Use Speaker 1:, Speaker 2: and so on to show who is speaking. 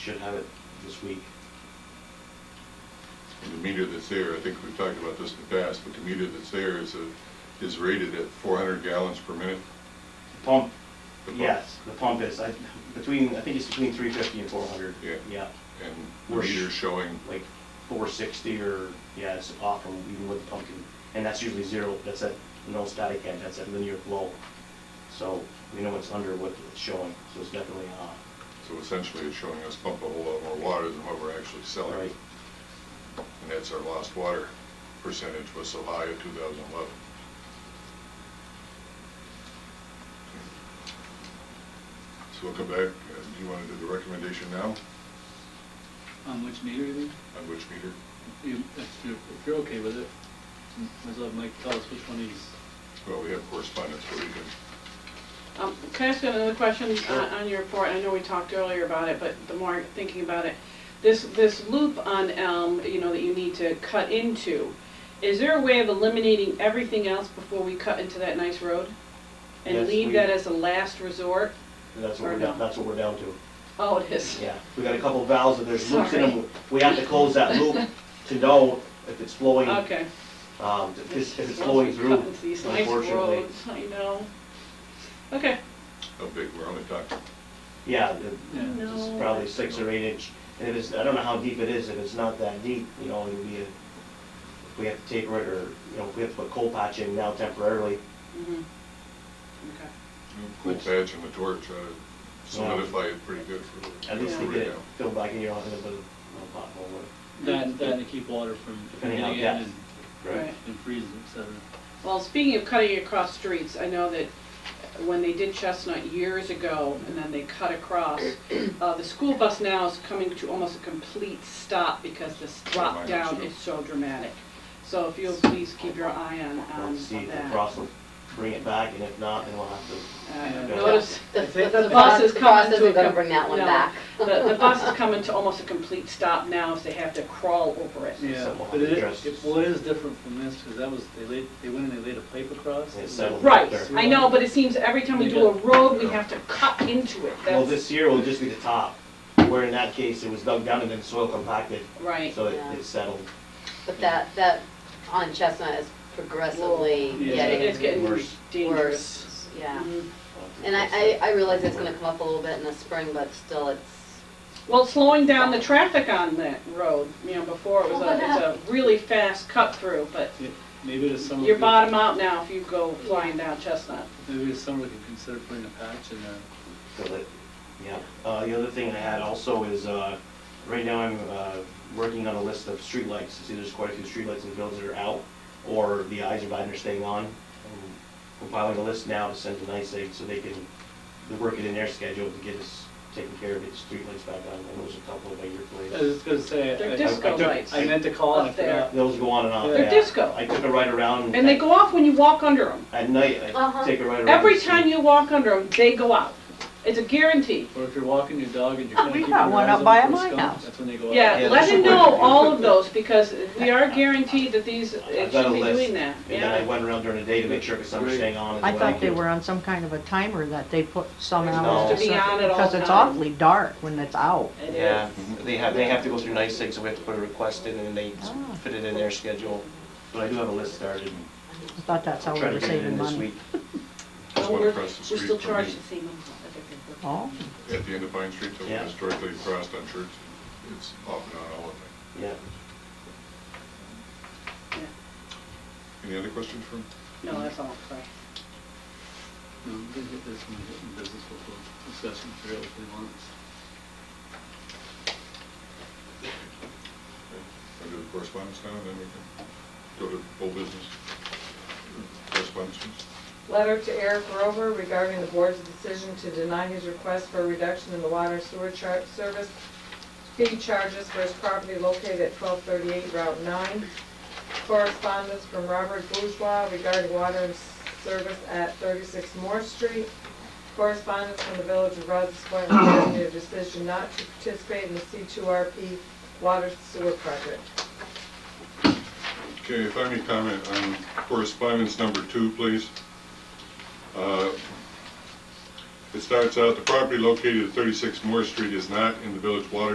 Speaker 1: Should have it this week.
Speaker 2: And the meter that's there, I think we've talked about this in the past, but the meter that's there is, a- is rated at 400 gallons per minute.
Speaker 1: Pump,
Speaker 2: The pump.
Speaker 1: yes, the pump is, I, between, I think it's between three fifty and four hundred.
Speaker 2: Yeah.
Speaker 1: Yeah,
Speaker 2: And the
Speaker 1: We're sh-
Speaker 2: meter's showing,
Speaker 1: like four sixty or, yeah, it's off from even with the pumpkin. And that's usually zero, that's at no static head, that's at linear flow. So we know it's under what it's showing, so it's definitely uh, off.
Speaker 2: so essentially it's showing us pump a whole lot more water than what we're actually selling.
Speaker 1: Right.
Speaker 2: And that's our lost water percentage was so high in 2011. So we'll come back, Uh, do you want to do the recommendation now
Speaker 3: On which meter you mean?
Speaker 2: on which meter?
Speaker 3: You- If you're, if you're okay with it, might as well Mike tell us which one he's,
Speaker 2: Well, we have correspondence where we can
Speaker 4: Um, Can I ask you another question uh,
Speaker 2: Sure.
Speaker 4: on on your report? I know we talked earlier about it, but the more I'm thinking about it, this, this loop on Elm, you know, that you need to cut into, is there a way of eliminating everything else before we cut into that nice road?
Speaker 1: Yes,
Speaker 4: And leave
Speaker 1: we-
Speaker 4: that as a last resort?
Speaker 1: And that's what
Speaker 4: Or
Speaker 1: we're, down-
Speaker 4: no.
Speaker 1: that's what we're down to.
Speaker 4: Oh, it is.
Speaker 1: Yeah, we got a couple valves that there's loops in
Speaker 4: Sorry.
Speaker 1: them. We have to close that loop to know if it's flowing,
Speaker 4: Okay.
Speaker 1: um, if it's- if it's
Speaker 4: Once
Speaker 1: flowing
Speaker 4: we
Speaker 1: through,
Speaker 4: Cut into these nice
Speaker 1: unfortunately.
Speaker 4: roads, I know. Okay,
Speaker 2: How big, we're only talking,
Speaker 1: Yeah, the-
Speaker 3: yeah.
Speaker 4: No.
Speaker 1: It's probably six or eight inch, and if it's, I don't know how deep it is, if it's not that deep, you know, it'd be a, if we have to taper it, or, you know, if we have to put coal patch in now temporarily,
Speaker 4: mhm, okay.
Speaker 2: cool
Speaker 1: Which-
Speaker 2: patch and the torch, uh, solidify it pretty good for.
Speaker 1: at least
Speaker 2: for
Speaker 1: we get it
Speaker 2: right now.
Speaker 1: filled back in, you don't have a bit of a pothole, or-
Speaker 3: That, that to keep water from
Speaker 1: Depending
Speaker 3: getting
Speaker 1: on
Speaker 3: in
Speaker 1: depth.
Speaker 3: and
Speaker 4: Right.
Speaker 3: and freezing, et cetera.
Speaker 4: Well, speaking of cutting across streets, I know that when they did Chestnut years ago, and then they cut across, uh, the school bus now is coming to almost a complete stop because this
Speaker 1: Oh,
Speaker 4: drop down is so dramatic. So if you'll please keep your eye on, on
Speaker 1: We'll see if the
Speaker 4: Um, that.
Speaker 1: frost will bring it back, and if not, then we'll have to,
Speaker 4: Uh,
Speaker 1: Yeah.
Speaker 4: Notice,
Speaker 5: The,
Speaker 1: If it-
Speaker 5: the
Speaker 4: the bus
Speaker 5: bus,
Speaker 4: is
Speaker 5: the
Speaker 4: coming
Speaker 5: bus
Speaker 4: to a
Speaker 5: isn't gonna
Speaker 4: com-
Speaker 5: bring that one
Speaker 4: no.
Speaker 5: back.
Speaker 4: the, the bus is coming to almost a complete stop now, so they have to crawl over it.
Speaker 3: Yeah,
Speaker 1: Someone
Speaker 3: but it
Speaker 1: addressed-
Speaker 3: is, it- well, it is different from this, because that was, they laid, they went and they laid a pipe across.
Speaker 1: It settled
Speaker 4: Right,
Speaker 1: There.
Speaker 4: I know, but it seems every time we do a road, we have to cut into it,
Speaker 1: well,
Speaker 4: that's,
Speaker 1: this year will just be the top, where in that case, it was dug down and then soil compacted,
Speaker 4: right.
Speaker 1: so it,
Speaker 5: Yeah.
Speaker 1: it settled.
Speaker 5: But that, that on Chestnut is progressively
Speaker 3: Yeah.
Speaker 4: It's
Speaker 5: getting
Speaker 4: getting
Speaker 1: Worse.
Speaker 4: dangerous.
Speaker 5: worse. Yeah.
Speaker 4: Mhm.
Speaker 5: And I, I, I realize it's gonna come up a little bit in the spring, but still it's,
Speaker 4: Well, slowing down the traffic on that road, you know, before it was a, it's a really fast cut through, but
Speaker 3: Maybe this summer.
Speaker 4: you're
Speaker 3: we-
Speaker 4: bottom out now if you go flying down Chestnut.
Speaker 3: Maybe this summer we could consider putting a patch in there.
Speaker 1: Fill it, yeah. Uh, the other thing I had also is, uh, right now I'm, uh, working on a list of streetlights. See, there's quite a few streetlights in the village that are out, or the eyes are bad and are staying on. I'm Compiling a list now to send to NICEAG so they can work it in their schedule to get us taken care of, get streetlights back on. And there's a couple by your
Speaker 3: I
Speaker 1: place.
Speaker 3: was just gonna say.
Speaker 4: They're
Speaker 3: I-
Speaker 4: disco
Speaker 1: I- I-
Speaker 4: lights,
Speaker 3: I meant to call and I
Speaker 4: Up there.
Speaker 3: forgot.
Speaker 1: Those go on and off.
Speaker 3: They're
Speaker 1: yeah.
Speaker 4: Uh, disco.
Speaker 1: I took a ride around.
Speaker 4: and they go off when you walk under them.
Speaker 1: At night, I
Speaker 5: Uh-huh.
Speaker 1: take a ride around.
Speaker 4: Every
Speaker 1: and see-
Speaker 4: time you walk under them, they go out. It's a guarantee.
Speaker 3: Or if you're walking your dog and you're
Speaker 6: Oh,
Speaker 3: kinda
Speaker 6: we
Speaker 3: keeping your
Speaker 6: got
Speaker 3: eyes
Speaker 6: one up
Speaker 3: on
Speaker 6: by
Speaker 3: for
Speaker 6: my
Speaker 3: skunk,
Speaker 6: house.
Speaker 3: That's when they go out.
Speaker 4: Yeah,
Speaker 1: Yeah,
Speaker 4: let
Speaker 1: that's
Speaker 4: him
Speaker 1: what
Speaker 4: know
Speaker 1: we're-
Speaker 4: all of those because we are guaranteed that these,
Speaker 1: I've
Speaker 4: it
Speaker 1: got a
Speaker 4: should be
Speaker 1: list,
Speaker 4: doing that,
Speaker 1: And then I
Speaker 4: yeah.
Speaker 1: went around during the day to make sure, cause some are staying on as
Speaker 6: I
Speaker 1: well.
Speaker 6: thought they were on some kind of a timer that they put some
Speaker 4: They're
Speaker 6: hours
Speaker 1: supposed
Speaker 6: or
Speaker 1: to
Speaker 4: be on
Speaker 6: something,
Speaker 4: at all
Speaker 6: because it's
Speaker 4: times.
Speaker 6: awfully dark when it's out.
Speaker 4: It is.
Speaker 1: Yeah, they have, they have to go through nice things, so we have to put a request in, and they
Speaker 6: Ah.
Speaker 1: fit it in their schedule. But I do have a list started,
Speaker 6: I thought that's how
Speaker 1: I'll
Speaker 6: we
Speaker 1: try to
Speaker 6: were
Speaker 1: get it in
Speaker 6: saving
Speaker 1: this
Speaker 6: money.
Speaker 1: week.
Speaker 2: There's
Speaker 4: Well,
Speaker 2: one
Speaker 4: we're, we're
Speaker 2: across the street
Speaker 4: still
Speaker 2: from
Speaker 4: charged
Speaker 2: me.
Speaker 4: the same amount of everything.
Speaker 6: Oh,
Speaker 2: At the end of Pine Street, that
Speaker 1: Yeah.
Speaker 2: was directly across on Church, it's off and on all of it.
Speaker 1: Yeah,
Speaker 4: Yeah.
Speaker 2: Any other questions from,
Speaker 4: No, that's all, sorry.
Speaker 3: No, we can get this one, get in business, we'll we'll discuss and figure out what we want.
Speaker 2: uh, under the correspondence now, and then we can go to old business? Correspondence?
Speaker 7: Letter to Eric Rover regarding the board's decision to deny his request for a reduction in the water sewer char- service fee charges for his property located at twelve thirty-eight Route nine. Correspondence from Robert Bourgeois regarding water and service at thirty-six Moore Street. Correspondence from the village of Rouse's Point regarding their decision not to participate in the C two RP water sewer project.
Speaker 2: Okay, if I may comment on correspondence number two, please. Uh, It starts out, the property located at 36 Moore Street is not in the village water